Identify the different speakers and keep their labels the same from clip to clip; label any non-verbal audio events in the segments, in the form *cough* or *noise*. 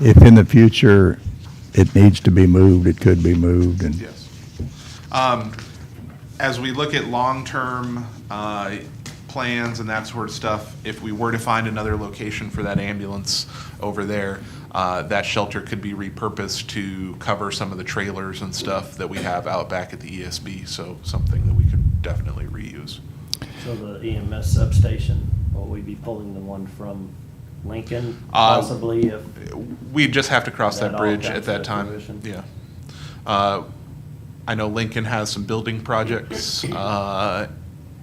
Speaker 1: if in the future it needs to be moved, it could be moved, and
Speaker 2: Yes. Um, As we look at long-term uh, plans and that sort of stuff, if we were to find another location for that ambulance over there, uh, that shelter could be repurposed to cover some of the trailers and stuff that we have out back at the ESB, so something that we could definitely reuse.
Speaker 3: So the EMS substation, will we be pulling the one from Lincoln
Speaker 2: Uh,
Speaker 3: possibly if?
Speaker 2: we just have to cross that
Speaker 3: That all
Speaker 2: bridge
Speaker 3: comes
Speaker 2: at that
Speaker 3: to
Speaker 2: time.
Speaker 3: fruition.
Speaker 2: Yeah. Uh, I know Lincoln has some building
Speaker 3: *coughs*
Speaker 2: projects uh,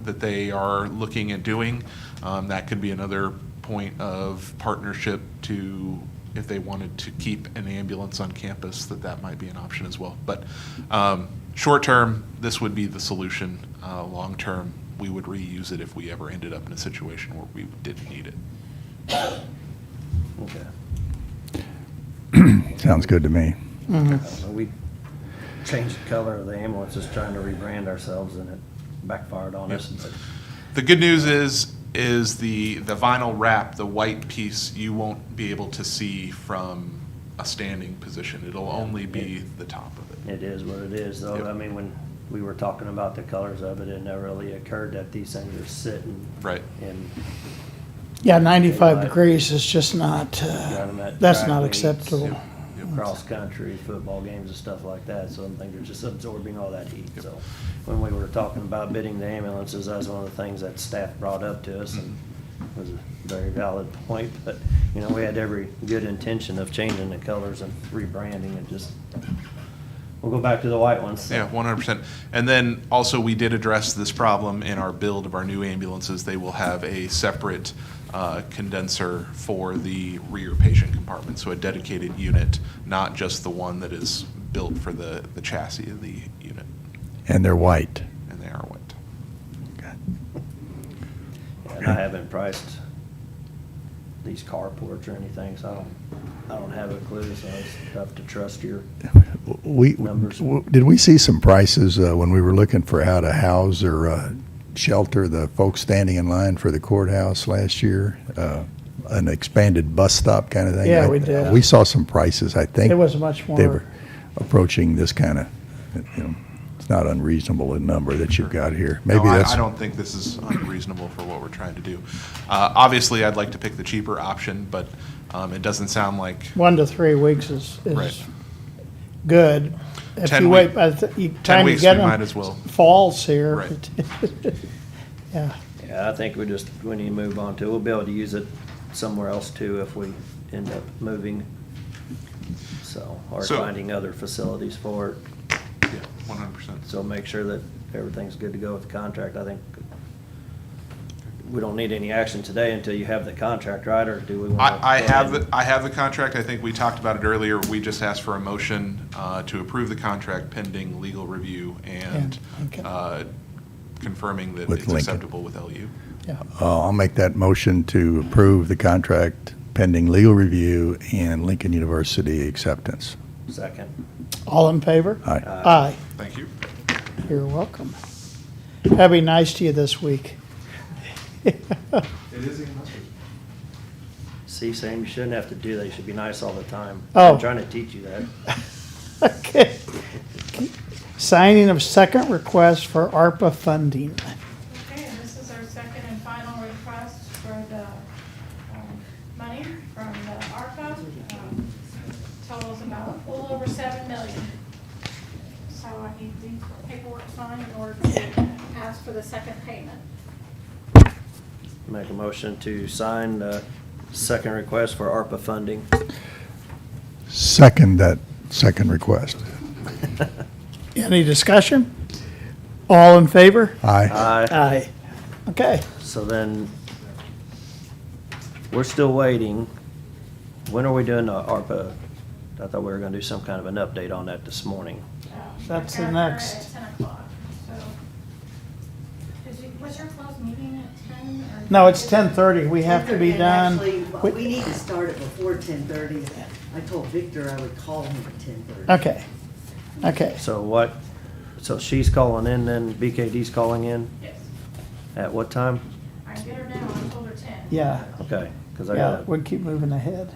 Speaker 2: that they are looking at doing. Um, That could be another point of partnership to, if they wanted to keep an ambulance on campus, that that might be an option as well. But um, short-term, this would be the solution. Uh, Long-term, we would reuse it if we ever ended up in a situation where we didn't need it.
Speaker 3: Okay.
Speaker 1: sounds good to me.
Speaker 2: Hmm.
Speaker 3: Uh, We changed the color of the ambulance, just trying to rebrand ourselves and it backfired on us. but
Speaker 2: The good news is, is the, the vinyl wrap, the white piece, you won't be able to see from a standing position. It'll only be the top of it.
Speaker 3: It is what it is though.
Speaker 2: Yep.
Speaker 3: I mean, when we were talking about the colors of it, it never really occurred that these things are sitting
Speaker 2: Right.
Speaker 3: and
Speaker 4: Yeah, 95
Speaker 3: Right.
Speaker 4: degrees is just not, uh,
Speaker 3: Got 'em at
Speaker 4: that's
Speaker 3: track
Speaker 4: not
Speaker 3: meets.
Speaker 4: acceptable.
Speaker 3: Mm-hmm. cross-country football games and stuff like that, so I think they're just absorbing all that heat, so. When we were talking about bidding the ambulances, that was one of the things that staff brought up to us, and it was a very valid point, but, you know, we had every good intention of changing the colors and rebranding and just, we'll go back to the white ones. so.
Speaker 2: Yeah, one hundred percent. And then also, we did address this problem in our build of our new ambulances. They will have a separate uh, condenser for the rear patient compartment, so a dedicated unit, not just the one that is built for the, the chassis of the unit,
Speaker 1: And they're white.
Speaker 2: and they are white.
Speaker 3: And I haven't priced these carports or anything, so I don't, I don't have a clue, so it's tough to trust your
Speaker 1: We,
Speaker 3: Numbers.
Speaker 1: w- did we see some prices uh, when we were looking for how to house or uh, shelter the folks standing in line for the courthouse last year? Uh, An expanded bus stop kind of thing?
Speaker 4: Yeah,
Speaker 1: I-
Speaker 4: we did.
Speaker 1: We saw some prices, I think.
Speaker 4: It was much
Speaker 1: They were
Speaker 4: more,
Speaker 1: approaching this kind of, you know, it's not unreasonable, the number that you've got here. Maybe
Speaker 2: no, I-
Speaker 1: that's.
Speaker 2: I, don't think this is unreasonable for what we're trying to do. Uh, obviously, I'd like to pick the cheaper option, but um, it doesn't sound like
Speaker 4: one to three weeks is,
Speaker 2: Right.
Speaker 4: is good. If
Speaker 2: 10
Speaker 4: you
Speaker 2: week-
Speaker 4: wait, by the ti- you-
Speaker 2: ten
Speaker 4: time you
Speaker 2: weeks.
Speaker 4: get
Speaker 2: we might
Speaker 4: them,
Speaker 2: as well.
Speaker 4: falls here.
Speaker 2: Right.
Speaker 4: *laughs* Yeah,
Speaker 3: Yeah, I think we just, we need to move on to, we'll be able to use it somewhere else too if we end up moving. So, or
Speaker 2: So-
Speaker 3: finding other facilities for it.
Speaker 2: Yeah, one hundred percent.
Speaker 3: So make sure that everything's good to go with the contract. I think we don't need any action today until you have the contract, right? Or do we want to?
Speaker 2: I, I have, the- I have the contract. I think we talked about it earlier. We just asked for a motion uh, to approve the contract pending legal review and
Speaker 4: Yeah, okay.
Speaker 2: uh, confirming that
Speaker 1: With
Speaker 2: it's
Speaker 1: Lincoln.
Speaker 2: acceptable with LU.
Speaker 4: yeah.
Speaker 1: Uh, I'll make that motion to approve the contract pending legal review and Lincoln University acceptance.
Speaker 3: Second.
Speaker 4: All in favor?
Speaker 1: Aye.
Speaker 4: Aye,
Speaker 2: Thank you.
Speaker 4: you're welcome. That'd be nice to you this week. *laughs*
Speaker 2: It is a message.
Speaker 3: See, Sam, you shouldn't have to do that. You should be nice all the time.
Speaker 4: Oh.
Speaker 3: I'm trying to teach you that.
Speaker 4: Okay. Signing of second request for ARPA funding.
Speaker 5: Okay, and this is our second and final request for the um, money from the ARPA. um, Totals about a little over seven million. So I need the paperwork signed in order to ask for the second payment.
Speaker 3: Make a motion to sign the second request for ARPA funding.
Speaker 1: Second, that second request.
Speaker 4: Any discussion? All in favor?
Speaker 1: Aye.
Speaker 3: Aye.
Speaker 4: Aye. Okay.
Speaker 3: So then, we're still waiting. When are we doing the ARPA? I thought we were gonna do some kind of an update on that this morning.
Speaker 5: Um,
Speaker 4: That's the
Speaker 5: I got her
Speaker 4: next.
Speaker 5: At ten o'clock, so. Is it- Was your closed meeting at ten or?
Speaker 4: No, it's 10:30. We have to be
Speaker 6: And
Speaker 4: done.
Speaker 6: Actually,
Speaker 4: We-
Speaker 6: we need to start it before ten thirty. I told Victor I would call him at ten thirty.
Speaker 4: Okay. Okay.
Speaker 3: So what, so she's calling in then, BKD's calling in?
Speaker 5: Yes,
Speaker 3: At what time?
Speaker 5: I can get her now, I told her ten.
Speaker 4: Yeah.
Speaker 3: Okay, cause I
Speaker 4: Yeah.
Speaker 3: gotta,
Speaker 4: We'll keep moving ahead.